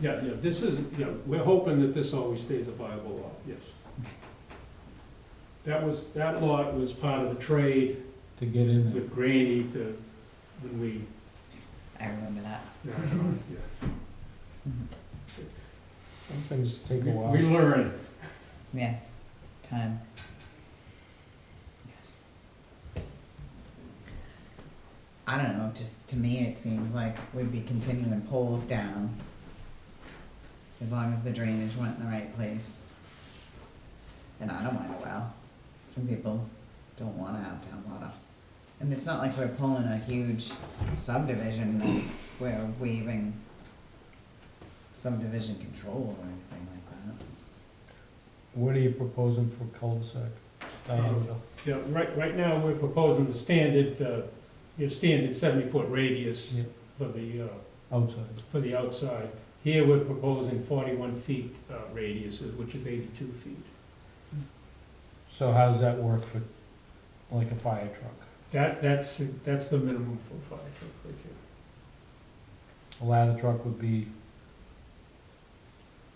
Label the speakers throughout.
Speaker 1: Yeah, yeah, this is, yeah, we're hoping that this always stays a viable lot, yes. That was, that lot was part of the trade
Speaker 2: to get in there.
Speaker 1: with Granny to, when we,
Speaker 3: I remember that.
Speaker 1: yeah, I know, yeah.
Speaker 2: Some things take a
Speaker 1: We-
Speaker 2: while.
Speaker 1: We learn,
Speaker 3: Yes. Time. Yes. I don't know, just to me it seems like we'd be continuing poles down. As long as the drainage went in the right place. And I don't mind a well. Some people don't wanna have town water. And it's not like we're pulling a huge subdivision and we're waiving subdivision control or anything like that.
Speaker 2: What are you proposing for cul-de-sac? Uh, diameter?
Speaker 1: yeah, right, right now, we're proposing the standard, uh, your standard seventy-foot radius
Speaker 2: Yeah.
Speaker 1: for the, uh,
Speaker 2: Outside,
Speaker 1: for the outside. Here, we're proposing forty-one feet, uh, radius, which is eighty-two feet.
Speaker 2: so how's that work for, like a fire truck?
Speaker 1: That, that's, that's the minimum for a fire truck right there.
Speaker 2: A ladder truck would be,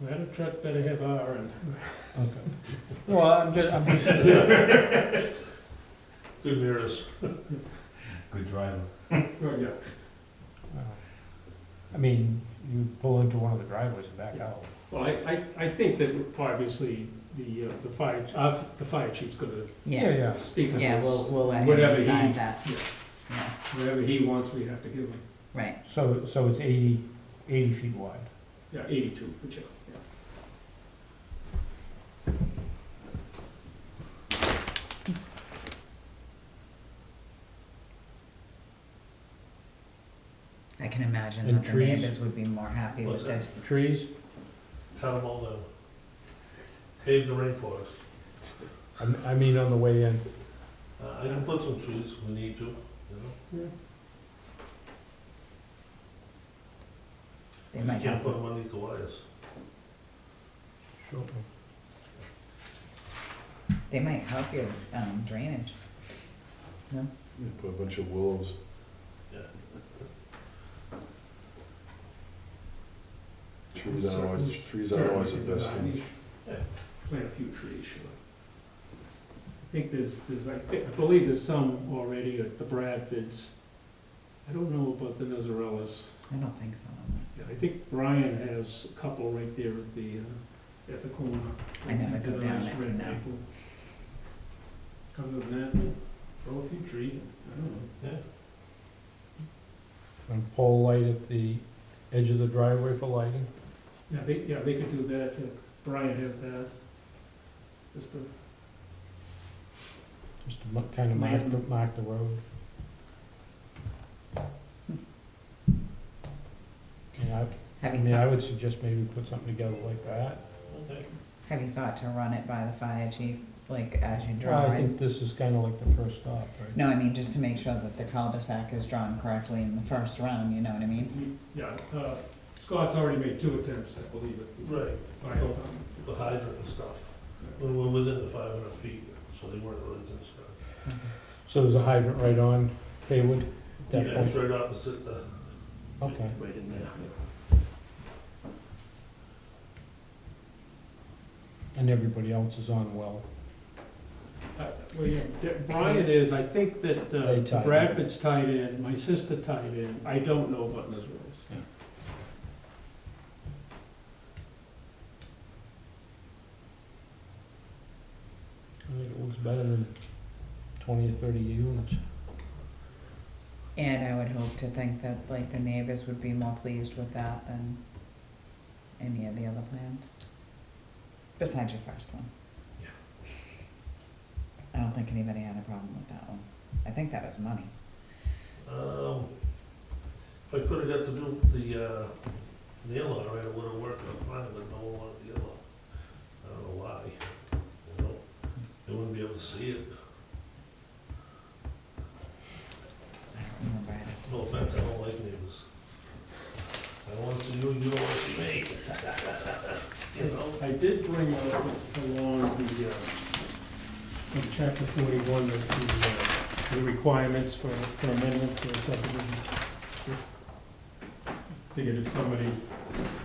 Speaker 1: Ladder truck better have R and.
Speaker 2: okay. No, I'm just, I'm just, uh,
Speaker 4: Good mirrors. Good driver.
Speaker 1: Oh, yeah.
Speaker 2: I mean, you pull into one of the driveways and back
Speaker 1: Yeah.
Speaker 2: out.
Speaker 1: Well, I, I, I think that obviously the, uh, the fire, uh, the fire chief's gonna
Speaker 3: Yeah,
Speaker 2: Yeah,
Speaker 1: speak on
Speaker 3: yeah, we'll,
Speaker 1: this.
Speaker 3: we'll let him
Speaker 1: Whatever he-
Speaker 3: decide that. Yeah,
Speaker 1: Whatever he wants, we have to give him.
Speaker 3: right,
Speaker 2: so, so it's eighty, eighty feet wide.
Speaker 1: Yeah, eighty-two, whichever, yeah.
Speaker 3: I can imagine
Speaker 2: And
Speaker 3: that the
Speaker 2: trees?
Speaker 3: neighbors would be more happy with
Speaker 4: What's that?
Speaker 3: this.
Speaker 2: Trees,
Speaker 4: Cut them all down. Pave the rainforest.
Speaker 2: I, m- I mean, on the way in,
Speaker 4: Uh, I can put some trees if we need to, you
Speaker 3: They
Speaker 4: know?
Speaker 3: might
Speaker 4: You can't
Speaker 3: have,
Speaker 4: put them underneath the wires.
Speaker 2: shortly.
Speaker 3: they might help your um, drainage.
Speaker 5: Put a bunch of wolves.
Speaker 4: Yeah.
Speaker 5: Trees aren't always, trees aren't always the best thing.
Speaker 4: Yeah.
Speaker 1: Plant a few trees, sure. I think there's, there's, I thi- I believe there's some already at the Bradfords. I don't know about the Nizarellas.
Speaker 3: I don't think so. on this.
Speaker 1: Yeah, I think Brian has a couple right there at the, uh, at the corner.
Speaker 3: I never go
Speaker 1: There's a
Speaker 3: down
Speaker 1: nice
Speaker 3: that
Speaker 1: red
Speaker 3: canal.
Speaker 1: maple. Other than that, throw a few trees, in. I don't know.
Speaker 4: Yeah.
Speaker 2: And pole light at the edge of the driveway for lighting.
Speaker 1: Yeah, they, yeah, they could do that, uh, Brian has that. Just a,
Speaker 2: Just to kind of mark the, mark the road. Yeah, I, I
Speaker 3: Have
Speaker 2: mean, I
Speaker 3: you,
Speaker 2: would suggest maybe put something together like that.
Speaker 4: Okay.
Speaker 3: have you thought to run it by the fire chief, like as you draw
Speaker 2: Well, I
Speaker 3: it?
Speaker 2: think this is kind of like the first stop, right?
Speaker 3: No, I mean, just to make sure that the cul-de-sac is drawn correctly in the first round, you know what I mean?
Speaker 1: yeah, uh, Scott's already made two attempts, I believe it.
Speaker 4: Right,
Speaker 1: Brian, um,
Speaker 4: the hydrant and stuff. When we're within the five hundred feet, so they weren't really concerned.
Speaker 2: So there's a hydrant right on Haywood? that
Speaker 4: Yeah, it's
Speaker 2: point?
Speaker 4: right opposite the,
Speaker 2: Okay,
Speaker 1: Right in there.
Speaker 2: and everybody else is on well.
Speaker 1: Uh, Well, yeah, De- Brian is, I think that
Speaker 2: They tied
Speaker 1: uh,
Speaker 2: in.
Speaker 1: Bradford's tied in, my sister tied in, I don't know about Nizarellas.
Speaker 2: Yeah. I think it looks better than twenty or thirty units.
Speaker 3: And I would hope to think that like the neighbors would be more pleased with that than any of the other plans. Besides your first one.
Speaker 4: Yeah.
Speaker 3: I don't think anybody had a problem with that one. I think that was money.
Speaker 4: um, if I could've got to do the, uh, nail on it, I would've worked out fine, but no one wanted the yellow. I don't know why, you know? They wouldn't be able to see it.
Speaker 3: I don't remember. I'd have to-
Speaker 4: No offense, I don't like neighbors. I don't want to see you, you don't want to see me. You know?
Speaker 1: I did bring uh, along the, uh, from chapter forty-one, of the, uh, the requirements for, for amendment for subdivision. Just Figured if somebody